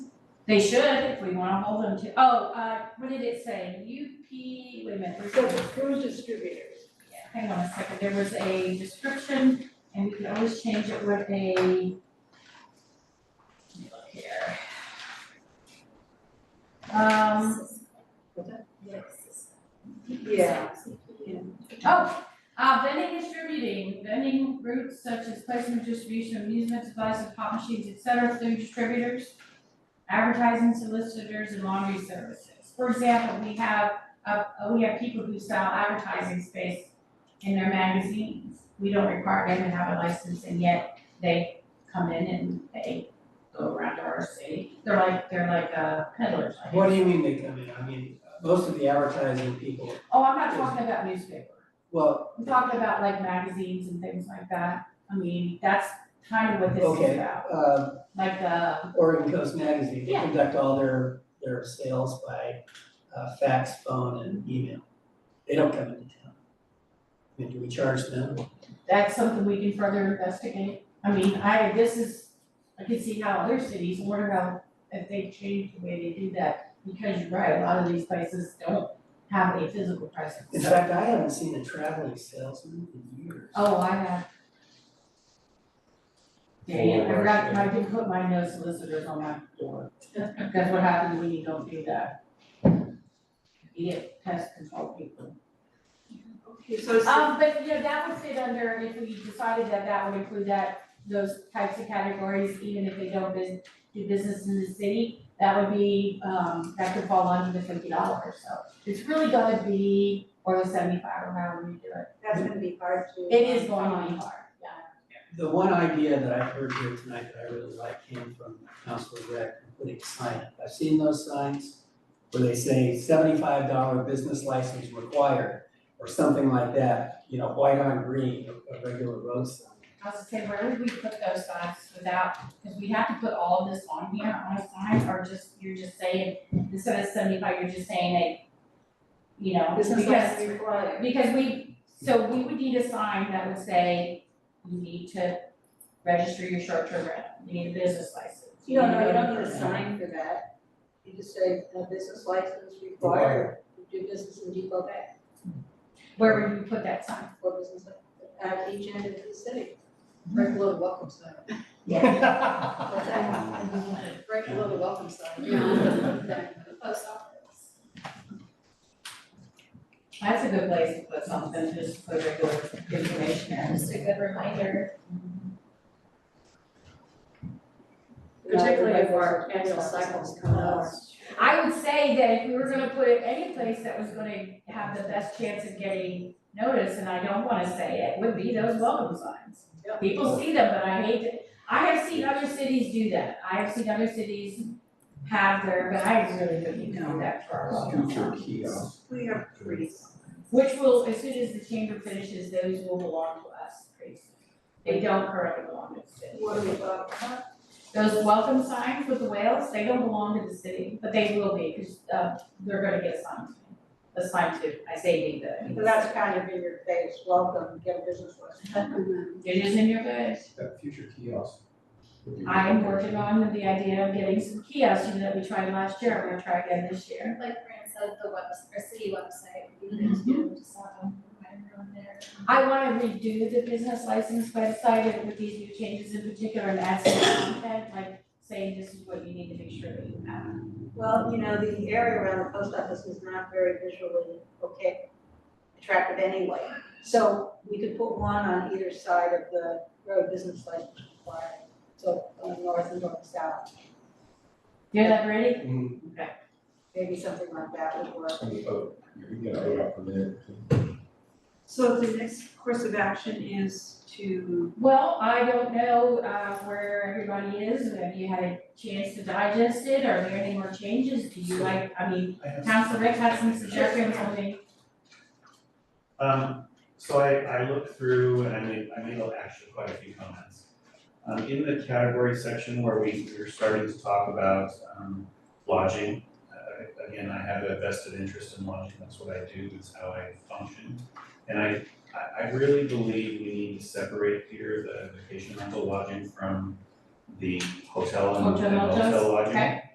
They should, if we wanna hold them to, oh, uh, what did it say, UP, wait a minute, where's So the- the cruise distributors, yeah, hang on a second, there was a description, and we could always change it with a. Let me look here. Um, yeah, oh, uh, vending distributing, vending routes such as placement distribution, amusement devices, pop machines, et cetera, through distributors. Advertising solicitors and laundry services, for example, we have, uh, we have people who sell advertising space in their magazines. We don't require them to have a license and yet they come in and they go around to our city. They're like, they're like uh, peddlers, I guess. What do you mean they come in? I mean, most of the advertising people, Oh, I'm not talking about newspaper. well, I'm talking about like magazines and things like that. I mean, that's kind of what this is Okay. about, uh, like the, Oregon Coast Magazine, they Yeah. conduct all their, their sales by uh, fax, phone, and email. They don't come into town. I mean, do we charge them? that's something we can further investigate. I mean, I, this is, I can see how other cities, wonder about if they change the way they do that. Because you're right, a lot of these places don't have a physical presence. In fact, I haven't seen a traveling salesman in years. Oh, I have. Dang, I forgot, I didn't put my no solicitors on my door. That's what happens when you don't do that. You get pest control people. okay, so it's the Um, but, you know, that would fit under, if we decided that that would include that, those types of categories, even if they don't bus- do business in the city, that would be, um, that could fall under the fifty dollars, so it's really gonna be, or the seventy-five, or however you do it. that's gonna be hard to. It is going to be hard, yeah. The one idea that I've heard here tonight that I really like came from Councilor Rec, putting a sign up. I've seen those signs where they say seventy-five dollar business license required, or something like that, you know, white on green, a a regular road sign. I was gonna say, where would we put those signs without, because we have to put all of this on here on a sign, or just, you're just saying, instead of seventy-five, you're just saying a, you know, Business because, license required. because we, so we would need a sign that would say, you need to register your short-term rental, you need a business license. You don't know, you don't need need a sign for that. You just say, no business license required, You do business in Depot Bay, Where would you put that sign? or business at each end of the city. Break a little welcome sign. What's that? Break a little welcome sign. post office. That's a good place to put something, just put regular information there. Just a good reminder. Particularly if our annual cycles come up. I would say that if we were gonna put it any place that was gonna have the best chance of getting notice, and I don't wanna say it, would be those welcome signs. Yep. People see them, but I hate it. I have seen other cities do that. I have seen other cities have their, but I really wouldn't do that for our welcome Future signs. kiosk. We have pretty. Which will, as soon as the chamber finishes, those will belong to us pretty soon. They don't currently belong to the city. What do we talk about? Those welcome signs with the whales, they don't belong to the city, but they will be, because, uh, they're gonna get assigned to me. Assigned to, I say me, but I mean. So that's kind of in your face, welcome, get a business license. It is in your face. That future kiosk. would be- I am working on the idea of getting some kiosks, you know, that we tried last year, I'm gonna try again this year. Like Fran said, the webs, our city website, we could do just have them remind everyone there. I wanna redo the business license website and with these new changes in particular and add some content, like saying this is what you need to make sure that you have. Well, you know, the area around the post office is not very visually okay, attractive anyway. So we could put one on either side of the road business license required, so on north and north south, You have that ready? Mm, maybe something like that would work. I mean, oh, you can get a vote out for that. So the next course of action is to, Well, I don't know uh where everybody is, have you had a chance to digest it, are there any more changes, do you like, I mean, I have- Council Rick had some suggestions, I mean, Um, so I, I looked through and I made, I made actually quite a few comments. Um, in the category section where we, we were starting to talk about, um, lodging, uh, again, I have a vested interest in lodging, that's what I do, it's how I function. And I, I, I really believe we need to separate here the vacation rental lodging from the hotel and Hotel and rentals, motel lodging. okay.